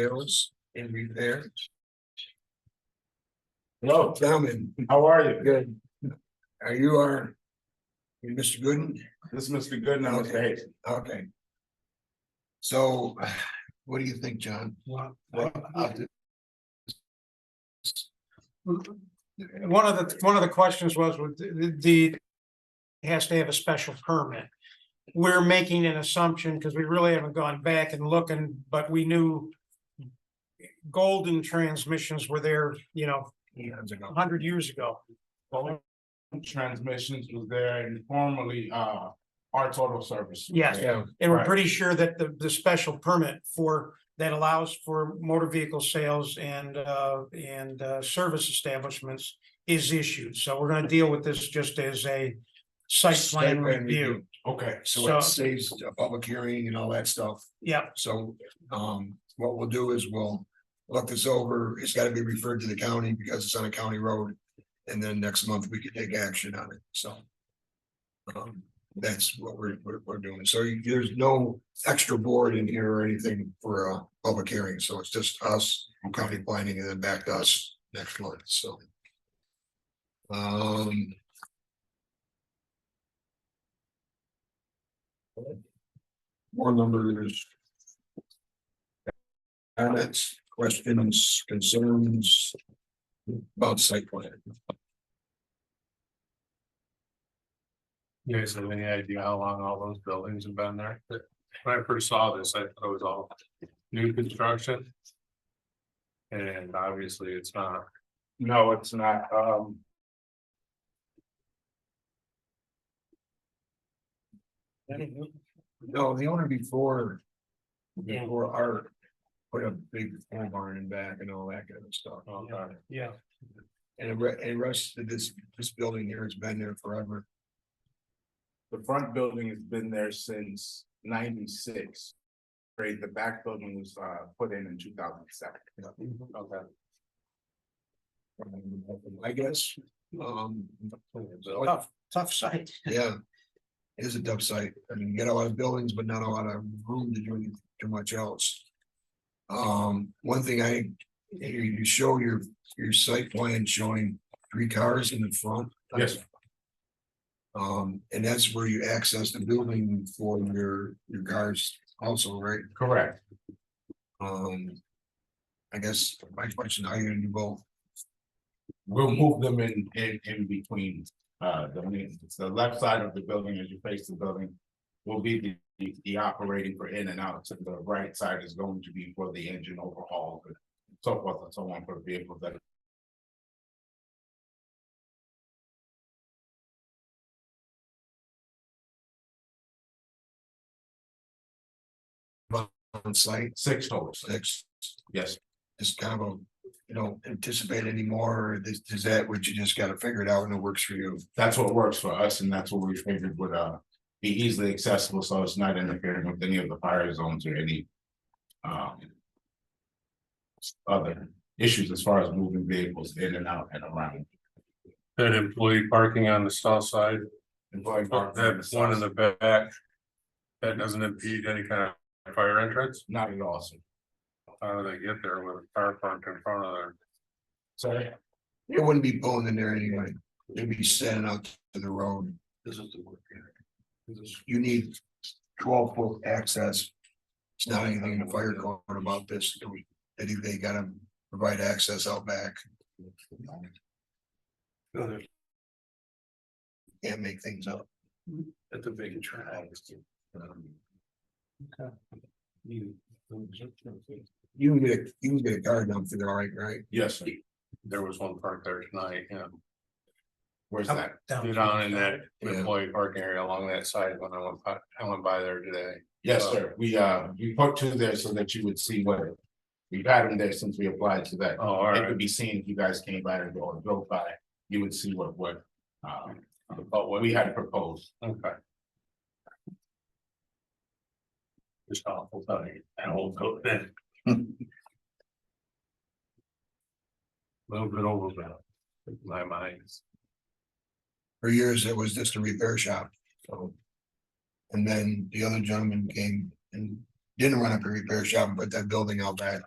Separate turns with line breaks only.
sales and repair.
Hello,
Plowman,
how are you?
good. Are you our? you Mr. Gooden?
This is Mr. Gooden, I'm Mr. Hayes.
Okay. So what do you think, John?
Well,
What-
One of the, one of the questions was with the, the. Has to have a special permit. We're making an assumption because we really haven't gone back and looking, but we knew. Golden transmissions were there, you know,
Years
a
ago.
hundred years ago.
Golden Transmissions was there and formerly uh Arts Auto Service.
Yes.
Yeah,
And we're
Right.
pretty sure that the, the special permit for, that allows for motor vehicle sales and, uh, and, uh, service establishments is issued. So we're gonna deal with this just as a site plan
Site plan
review.
review.
Okay,
so it
So-
saves a public hearing and all that stuff.
Yeah,
So um what we'll do is we'll look this over. It's gotta be referred to the county because it's on a county road. And then next month we can take action on it, so. Um, that's what we're we're we're doing. So you- there's no extra board in here or anything for a public hearing, so it's just us. County planning and then back to us next month, so. Um. More numbers. Comments, questions, concerns about site plan.
You guys have any idea how long all those buildings have been there? When I first saw this, I thought it was all new construction. And obviously it's not,
no, it's not, um.
No, the owner before, before Art put a big pole barn in back and all that kind of stuff.
okay,
yeah.
And the re- and the rest of this, this building here has been there forever.
The front building has been there since ninety-six. Right, the back building was uh put in in two thousand seven.
okay.
I guess, um.
Tough, tough site.
Yeah. It is a dump site. I mean, you got a lot of buildings, but not a lot of room to do any- too much else. Um, one thing I, you you show your, your site plan showing three cars in the front.
Yes.
Um, and that's where you access the building for your, your cars also, right?
Correct.
Um. I guess my question, how you gonna do both?
We'll move them in in in between uh the maintenance. The left side of the building as you face the building. Will be the the- the operating for in and out. The right side is going to be for the engine overhaul. and So forth and so on for vehicles that
On site,
six total.
six,
Yes,
is kind of a, you know, anticipate anymore, or is, is that what you just gotta figure it out and it works for you?
that's what works for us and that's what we figured would uh be easily accessible. So it's not interfering with any of the fire zones or any. Um. Other issues as far as moving vehicles in and out and around.
That employee parking on the south side,
And going back to
that one in the back. That doesn't impede any kind of fire entrance,
Not at all, sir.
how do they get there with a car parked in front of there?
Sorry?
It wouldn't be pulling in there anyway, it'd be standing out to the road. This is the work area. You need twelve foot access. It's not anything in the fire code about this, that if they gotta provide access out back. Can't make things up.
At the big track.
You can get, a you can get a car down through there, all right, right?
Yes, sir.
There was one parked there tonight, yeah.
Where's that?
Get on in that
Yeah.
employee parking area along that side when I went, by- I went by there today.
Yes, sir. We, uh, we put two there so that you would see what. We've had them there since we applied to that.
Oh, all
It
right,
could be seen if you guys came by and go or drove by, you would see what, what, um,
about
what
what,
we had proposed.
okay. Just awful thing, that whole coat then. Little bit overboard, in my mind.
For years, it was just a repair shop, so. And then the other gentleman came and didn't run up a repair shop, but that building out back